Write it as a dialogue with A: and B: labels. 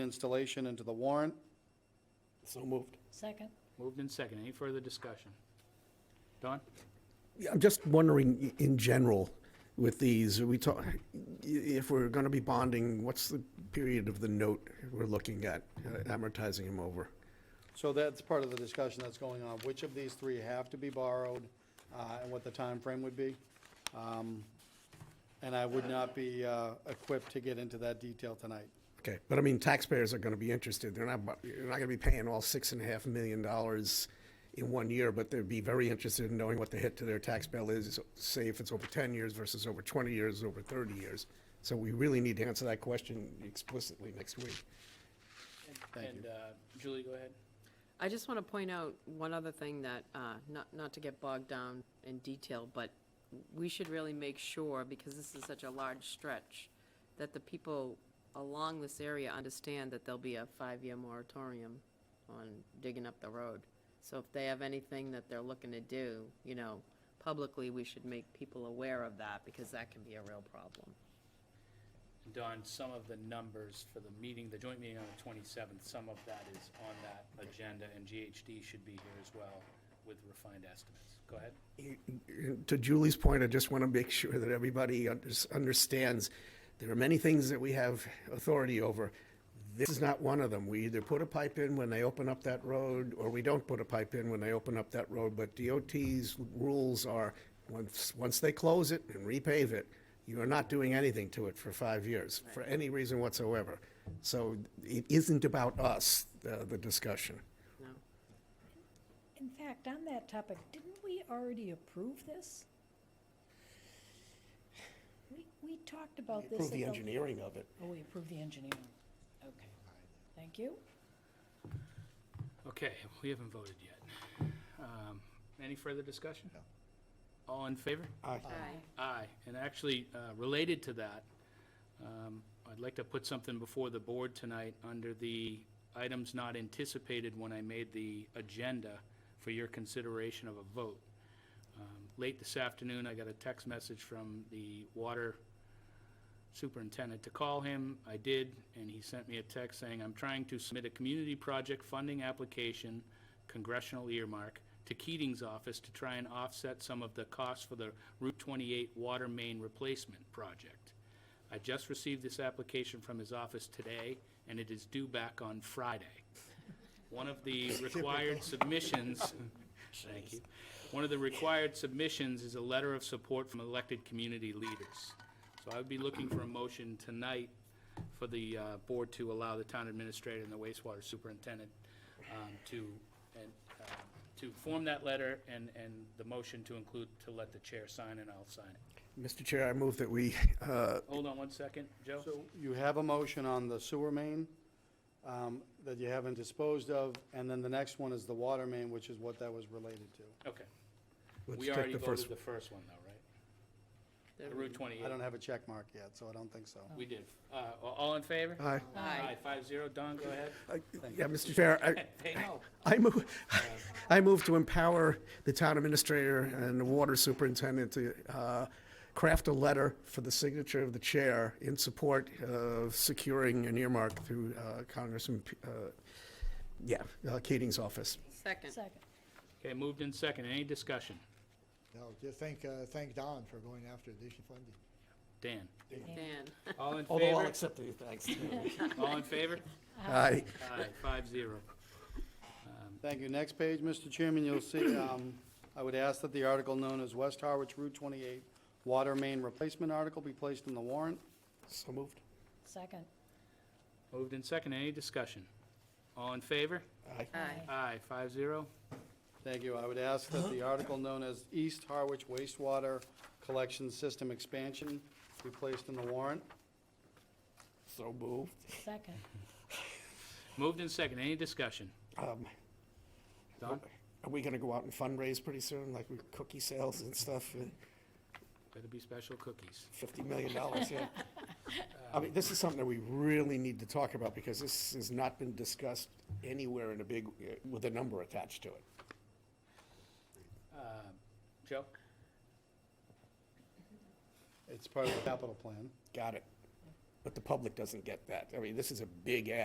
A: installation into the warrant.
B: So moved.
C: Second.
D: Moved and second. Any further discussion? Don?
B: I'm just wondering, i- in general, with these, we talk, i- if we're going to be bonding, what's the period of the note we're looking at, uh, amortizing them over?
A: So that's part of the discussion that's going on, which of these three have to be borrowed, uh, and what the time frame would be. Um, And I would not be, uh, equipped to get into that detail tonight.
B: Okay, but I mean, taxpayers are going to be interested. They're not, bu- you're not going to be paying all six and a half million dollars in one year, but they'd be very interested in knowing what the hit to their tax bill is, say if it's over 10 years versus over 20 years, over 30 years. So we really need to answer that question explicitly next week.
A: Thank
D: And uh, Julie, go ahead.
E: I just want to point out one other thing that, uh, not, not to get bogged down in detail, but we should really make sure, because this is such a large stretch, that the people along this area understand that there'll be a five-year moratorium on digging up the road. So if they have anything that they're looking to do, you know, publicly, we should make people aware of that, because that can be a real problem.
D: And Don, some of the numbers for the meeting, the joint meeting on the 27th, some of that is on that agenda, and GHD should be here as well with refined estimates. Go ahead.
B: to Julie's point, I just want to make sure that everybody unders- understands there are many things that we have authority over. This is not one of them. We either put a pipe in when they open up that road, or we don't put a pipe in when they open up that road. But DOT's rules are, once, once they close it and repave it, you are not doing anything to it for five years, for any reason whatsoever. So it isn't about us, uh, the discussion.
E: No,
C: In fact, on that topic, didn't we already approve this? We, we talked about this.
B: Prove
C: at
B: the engineering of it.
C: Oh, we approved the engineering. Okay. Thank you.
D: Okay, we haven't voted yet. Um, Any further discussion? No. All in favor? Aye, and actually, uh, related to that, um, I'd like to put something before the board tonight under the items not anticipated when I made the agenda for your consideration of a vote. Um, Late this afternoon, I got a text message from the water superintendent to call him. I did, and he sent me a text saying, "I'm trying to submit a community project funding application, congressional earmark, to Keating's office to try and offset some of the costs for the Route 28 water main replacement project. I just received this application from his office today, and it is due back on Friday." One of the required submissions, thank you, one of the required submissions is a letter of support from elected community leaders. So I would be looking for a motion tonight for the uh, board to allow the town administrator and the wastewater superintendent um, to, and, uh, to form that letter and, and the motion to include to let the chair sign and I'll sign it.
B: Mr. Chair, I move that we uh,
D: Hold on one second, Joe?
A: So you have a motion on the sewer main um, that you haven't disposed of, and then the next one is the water main, which is what that was related to.
D: Okay.
B: Let's
D: We
B: check
D: already
B: the first
D: voted the first one though, right? The Route 28.
A: I don't have a check mark yet, so I don't think so.
D: We did. Uh, a- All in favor?
B: Aye.
E: Aye.
D: Five zero. Don, go ahead.
B: Uh, Yeah, Mr. Chair, I,
D: Hey, no.
B: I move, I move to empower the town administrator and the water superintendent to uh, craft a letter for the signature of the chair in support of securing an earmark through uh, Congressman, P- uh, yeah, uh, Keating's office.
E: second.
C: Second.
D: Okay, moved in second. Any discussion?
F: No, just thank, uh, thank Don for going after additional funding.
D: Dan?
E: Dan,
D: All in favor?
B: accept the thanks.
D: All in favor?
B: Aye.
D: Aye, five zero.
A: Thank you. Next page, Mr. Chairman, you'll see, um, I would ask that the article known as West Harwich Route 28 Water Main Replacement Article be placed in the warrant.
B: So moved.
C: Second.
D: Moved in second. Any discussion? All in favor?
B: Aye.
E: aye.
D: Aye, five zero.
A: Thank you. I would ask that the article known as East Harwich Wastewater Collection System Expansion be placed in the warrant.
B: So moved.
C: Second.
D: Moved in second. Any discussion?
B: Um,
D: Don?
B: Are we going to go out and fundraise pretty soon, like with cookie sales and stuff? Uh,
D: Better be special cookies.
B: $50 million, yeah. I mean, this is something that we really need to talk about because this has not been discussed anywhere in a big, uh, with a number attached to it.
D: Uh, Joe?
A: It's part of the capital plan.
B: Got it. But the public doesn't get that. I mean, this is a big ask.